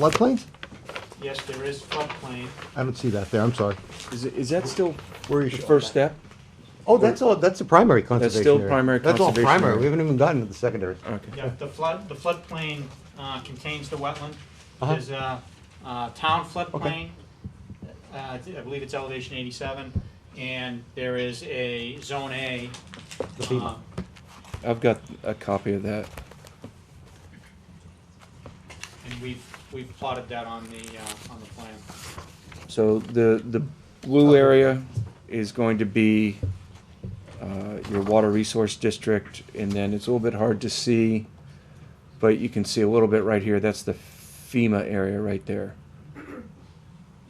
Floodplain? Yes, there is floodplain. I don't see that there, I'm sorry. Is, it- is that still Where are you the showing first that? step? Oh, that's all, that's the primary conservation still area. primary That's conservation all primary, area. we haven't even gotten to the secondary. Okay. Yeah, the flood, the floodplain uh, contains the wetland. Uh-huh. There's a uh, town floodplain. Uh, I thi- I believe it's elevation 87, and there is a Zone A. The B. uh, I've got a copy of that. And we've, we've plotted that on the, uh, on the plan. So the, the blue area is going to be, uh, your water resource district, and then it's a little bit hard to see, but you can see a little bit right here, that's the FEMA area right there. Uh,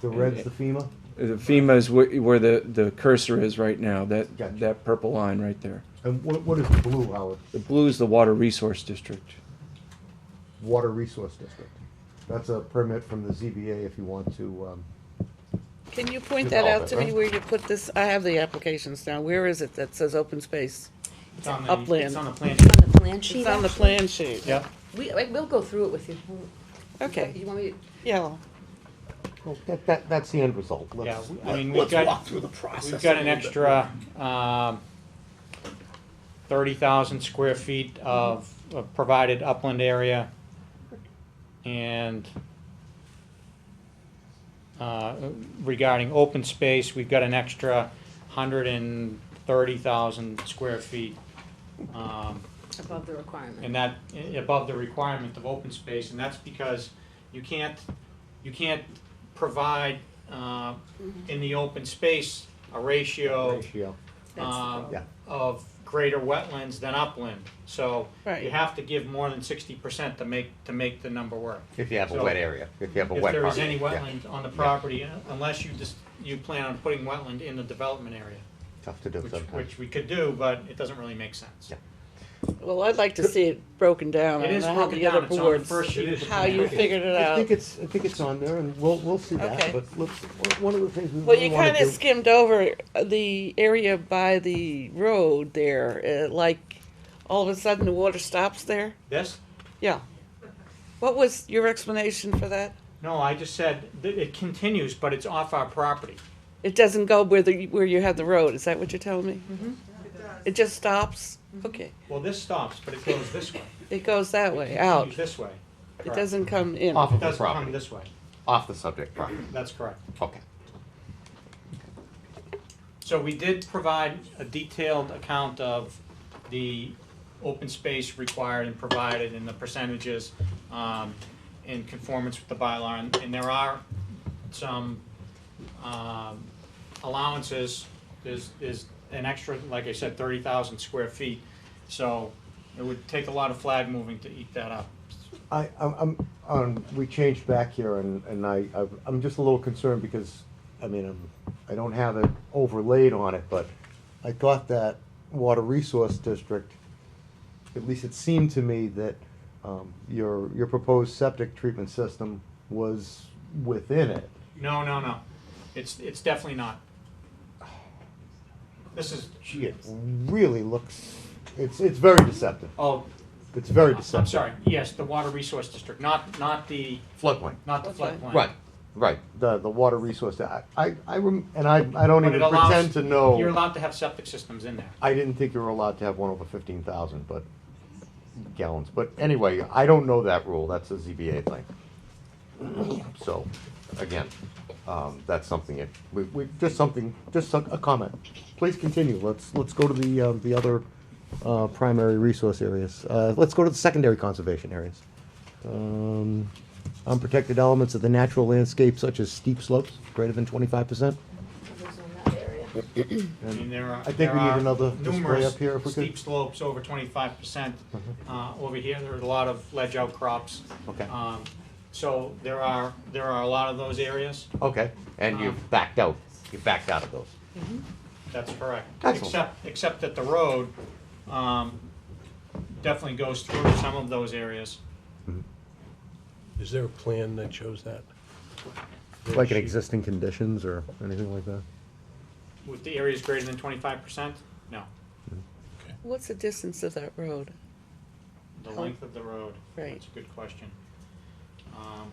The red's the FEMA? The FEMA is where, where the, the cursor is right now, Gotcha. that, that purple line right there. And what, what is the blue, Howard? The blue is the water resource district. Water Resource District. That's a permit from the ZBA if you want to, um, Can you point that out to Develop it, me right? where you put this, I have the applications now, where is it that says open space? It's on the- Upland. It's on the plan. On the plan sheet? It's on the actually? plan sheet. Yep. We, I- we'll go through it with you. Okay. You want me to? Yellow. well, that, that, that's the end result. Yeah, Let's- I mean, we've got, through the process. we've got an extra um, 30,000 square feet of of provided upland area. And uh, regarding open space, we've got an extra 130,000 square feet. um, Above the requirement. and that, i- above the requirement of open space, and that's because you can't, you can't provide, uh, in the open space, a ratio Ratio. That's the um, problem. Yeah. of greater wetlands than upland, so you Right. have to give more than sixty percent to make, to make the number work. If you have So- a wet area, if you have a If wet there area. is any wetland on the property, uh, unless you just, you plan on putting wetland in the development area, Tough to do which, sometimes. which we could do, but it doesn't really make sense. Yeah. Well, I'd like to see it broken down, It and is I have broken the down, other it's on the boards, first sheet. of the how plan. you figured it I out. think it's, I think it's on there and we'll, we'll see that, Okay. but look, one of the things we Well, really you wanna kinda do. skimmed over the area by the road there, uh, like, all of a sudden the water stops there? This, Yeah. What was your explanation for that? No, I just said that it continues, but it's off our property. It doesn't go where the, where you have the road, is that what you're telling me? Mm-hmm. It just stops? Okay, Well, this stops, but it goes this way. it goes that It way, continues out. This way. It Correct. doesn't come in. Off It of the doesn't come property, this way. off the subject property, That's correct. okay. So we did provide a detailed account of the open space required and provided and the percentages um, in conformance with the bylaw. And- And there are some um, allowances. There's, there's an extra, like I said, thirty thousand square feet. So it would take a lot of flag moving to eat that up. I, I'm, I'm, um, we changed back here and, and I, I've- I'm just a little concerned because, I mean, I'm, I don't have it overlaid on it, but I thought that water resource district, at least it seemed to me that, um, your, your proposed septic treatment system was within it. No, no, no. It's, it's definitely not. This is, Gee, it really looks, it's, it's very deceptive. oh, It's very deceptive. I'm sorry, yes, the water resource district, not, not the, Floodplain. not the Floodplain. floodplain. right. The, the water resource, I, I, I rem- and I, I don't But even it allows- pretend to know. You're allowed to have septic systems in there. I didn't think you were allowed to have one over fifteen thousand, but gallons, but anyway, I don't know that rule, that's a ZBA thing. So, again, um, that's something, it, we, we, just something, just a, a comment, please continue, let's, let's go to the, um, the other, uh, primary resource areas, uh, let's go to the secondary conservation areas. Um, unprotected elements of the natural landscape such as steep slopes, greater than twenty-five percent. Others on that area. I mean, there are, I think there we need are another display numerous up here if we could. Mm-hmm. steep slopes over twenty-five percent. Uh, over here, there are a lot of ledge outcrops. Okay. Um, So there are, there are a lot of those areas, Okay, and you've backed out, you backed out of those. that's correct. Excellent. Except, except that the road, um, definitely goes through some of those areas. Is there a plan that shows that? Like in existing conditions or anything like that? With the areas greater than twenty-five percent, no, What's the distance of that road? the length of the road. Right. That's a good question. Um,